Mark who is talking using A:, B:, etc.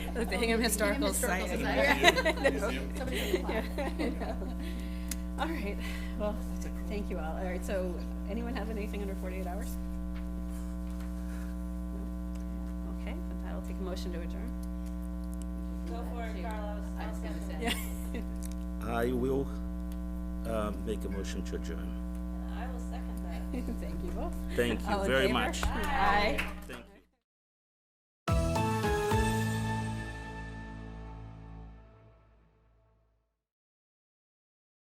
A: Like the Hingham Historical
B: Historical
A: Society.
B: Society.
A: Yeah.
B: Yep. Somebody can apply.
A: Yeah. All right, well, thank you all. All right, so anyone have anything under forty-eight hours? No? Okay, but that'll take a motion to adjourn.
C: Go for it, Carlos.
B: I was gonna say.
A: Yeah.
D: I will, um, make a motion to adjourn.
C: And I will second that.
A: Thank you both.
D: Thank
A: All
D: you
A: in
D: very
A: favor?
D: much.
A: Aye.